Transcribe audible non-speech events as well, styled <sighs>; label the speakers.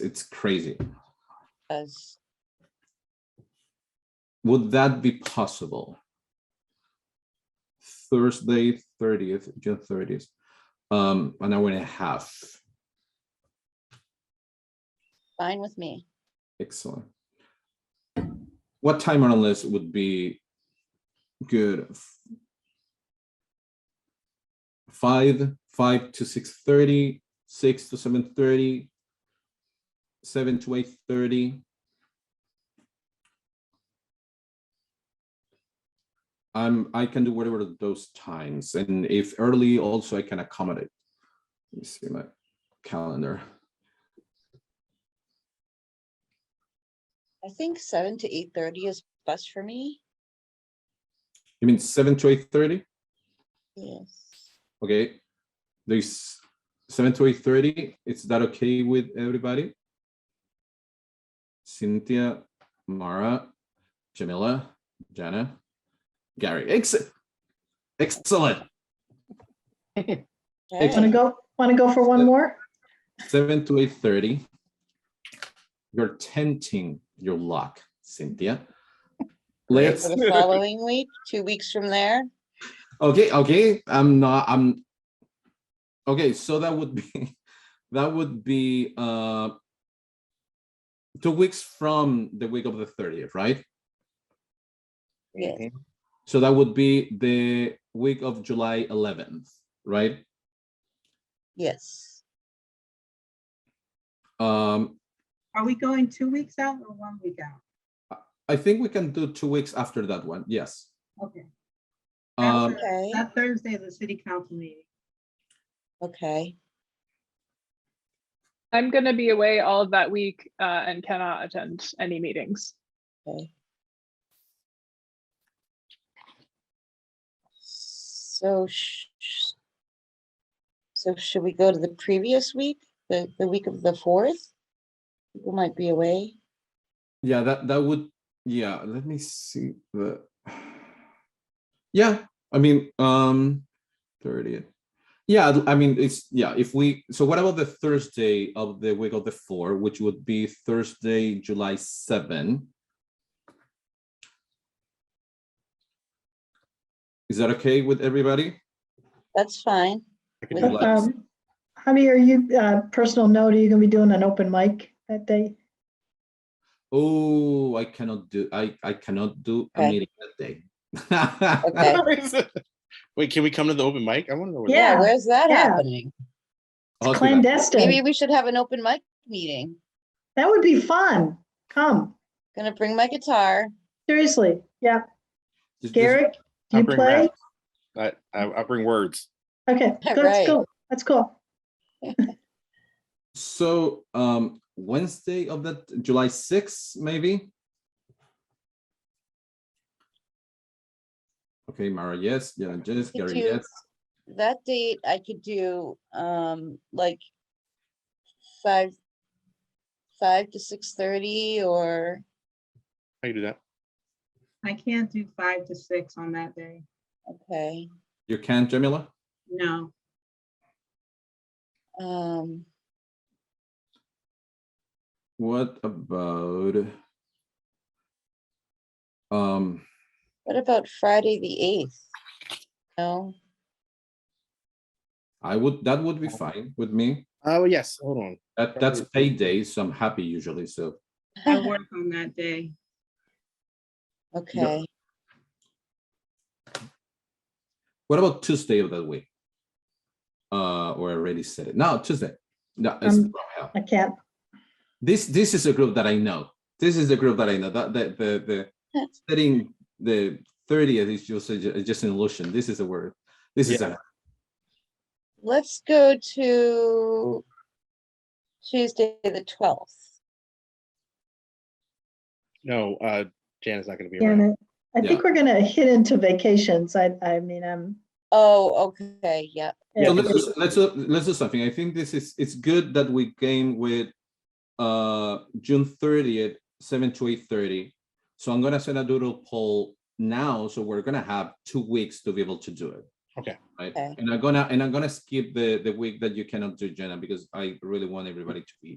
Speaker 1: it's crazy.
Speaker 2: As
Speaker 1: Would that be possible? Thursday, thirtieth, June thirtieth, um, an hour and a half.
Speaker 2: fine with me.
Speaker 1: Excellent. What time on the list would be good? F- Five, five to six thirty, six to seven thirty, seven to eight thirty. I'm, I can do whatever those times, and if early, also I can accommodate. Let me see my calendar.
Speaker 2: I think seven to eight thirty is best for me.
Speaker 1: You mean seven to eight thirty?
Speaker 2: Yes.
Speaker 1: Okay, there's seven to eight thirty. Is that okay with everybody? Cynthia, Mara, Jamila, Jana, Gary. Ex- Excellent.
Speaker 3: <laughs> Want to
Speaker 1: Excellent.
Speaker 2: Okay.
Speaker 3: go, want to go for one more?
Speaker 1: Seven to eight thirty. You're tenting your luck, Cynthia. Let's.
Speaker 2: For the following week, two weeks from there,
Speaker 1: Okay, okay, I'm not, I'm. Okay, so that would be, <laughs> that would be, uh. Two weeks from the week of the thirtieth, right?
Speaker 2: yes,
Speaker 1: So that would be the week of July eleventh, right?
Speaker 2: yes,
Speaker 1: Um,
Speaker 4: Are we going two weeks out or one week out?
Speaker 1: I think we can do two weeks after that one, yes.
Speaker 4: Okay,
Speaker 1: Um,
Speaker 2: okay,
Speaker 4: that Thursday is a city council meeting.
Speaker 2: okay,
Speaker 5: I'm gonna be away all of that week uh, and cannot attend any meetings.
Speaker 2: okay. So sh- sh- so should we go to the previous week, the, the week of the fourth? People might be away.
Speaker 1: yeah, that, that would, yeah, let me see the. <sighs> Yeah, I mean, um, thirtieth. Yeah, I mean, it's, yeah, if we, so what about the Thursday of the week of the four, which would be Thursday, July seven? Is that okay with everybody?
Speaker 2: That's fine.
Speaker 1: do
Speaker 2: With-
Speaker 1: that.
Speaker 3: Um, Javi, are you, uh, personal note, are you going to be doing an open mic that day?
Speaker 1: Oh, I cannot do, I, I cannot do a
Speaker 2: Okay.
Speaker 1: meeting that <laughs> day.
Speaker 2: Okay.
Speaker 6: <laughs> Wait, can we come to the open mic? I want to know. where-
Speaker 3: Yeah.
Speaker 2: Yeah, where's that
Speaker 3: yeah.
Speaker 2: happening?
Speaker 1: I'll do that.
Speaker 2: Maybe
Speaker 3: Clandestine.
Speaker 2: we should have an open mic meeting.
Speaker 3: That would be fun. Come,
Speaker 2: Gonna bring my guitar.
Speaker 3: seriously. Yeah.
Speaker 1: Just- just-
Speaker 3: Garrick, do
Speaker 6: I'll
Speaker 3: you
Speaker 6: bring
Speaker 3: play?
Speaker 6: rap. I, I, I'll bring words.
Speaker 2: <laughs>
Speaker 3: Okay,
Speaker 2: Yeah, right.
Speaker 3: that's cool. That's cool.
Speaker 1: So um Wednesday of that July sixth, maybe? Okay, Mara, yes, yeah, Janice,
Speaker 2: Could
Speaker 1: Gary,
Speaker 2: you-
Speaker 1: yes,
Speaker 2: That date I could do, um, like five, five to six thirty or,
Speaker 6: How you do that?
Speaker 4: I can't do five to six on that day.
Speaker 2: okay,
Speaker 1: you can, Jamila?
Speaker 4: No,
Speaker 2: um,
Speaker 1: What about? Um,
Speaker 2: what about Friday, the eighth? No, <laughs>
Speaker 1: I would, that would be fine with me.
Speaker 6: Oh, yes. Hold on.
Speaker 1: That that's payday, so I'm happy usually, so.
Speaker 4: I work on that day.
Speaker 2: okay,
Speaker 1: What about Tuesday of that week? Uh, or I already said it. No, Tuesday. No, it's
Speaker 3: Um,
Speaker 1: from hell.
Speaker 3: I can't.
Speaker 1: this this is a group that I know. This is the group that I know. That the the the setting the thirtieth is just a- is just an illusion. This is a word. This is a
Speaker 2: let's go to Tuesday, the twelfth.
Speaker 6: No, uh, Jan is not going to be around.
Speaker 3: Janet, I think we're going to hit into vacations. I, I mean, I'm.
Speaker 2: Oh, okay, yep,
Speaker 1: so
Speaker 3: yeah,
Speaker 1: let's do- let's do- let's do something. I think this is it's good that we game with uh June thirtieth, seven to eight thirty. So I'm gonna send a doodle poll now. So we're gonna have two weeks to be able to do it.
Speaker 6: Okay.
Speaker 1: Right.
Speaker 2: Okay.
Speaker 1: And I'm gonna and I'm gonna skip the the week that you cannot do Jenna because I really want everybody to be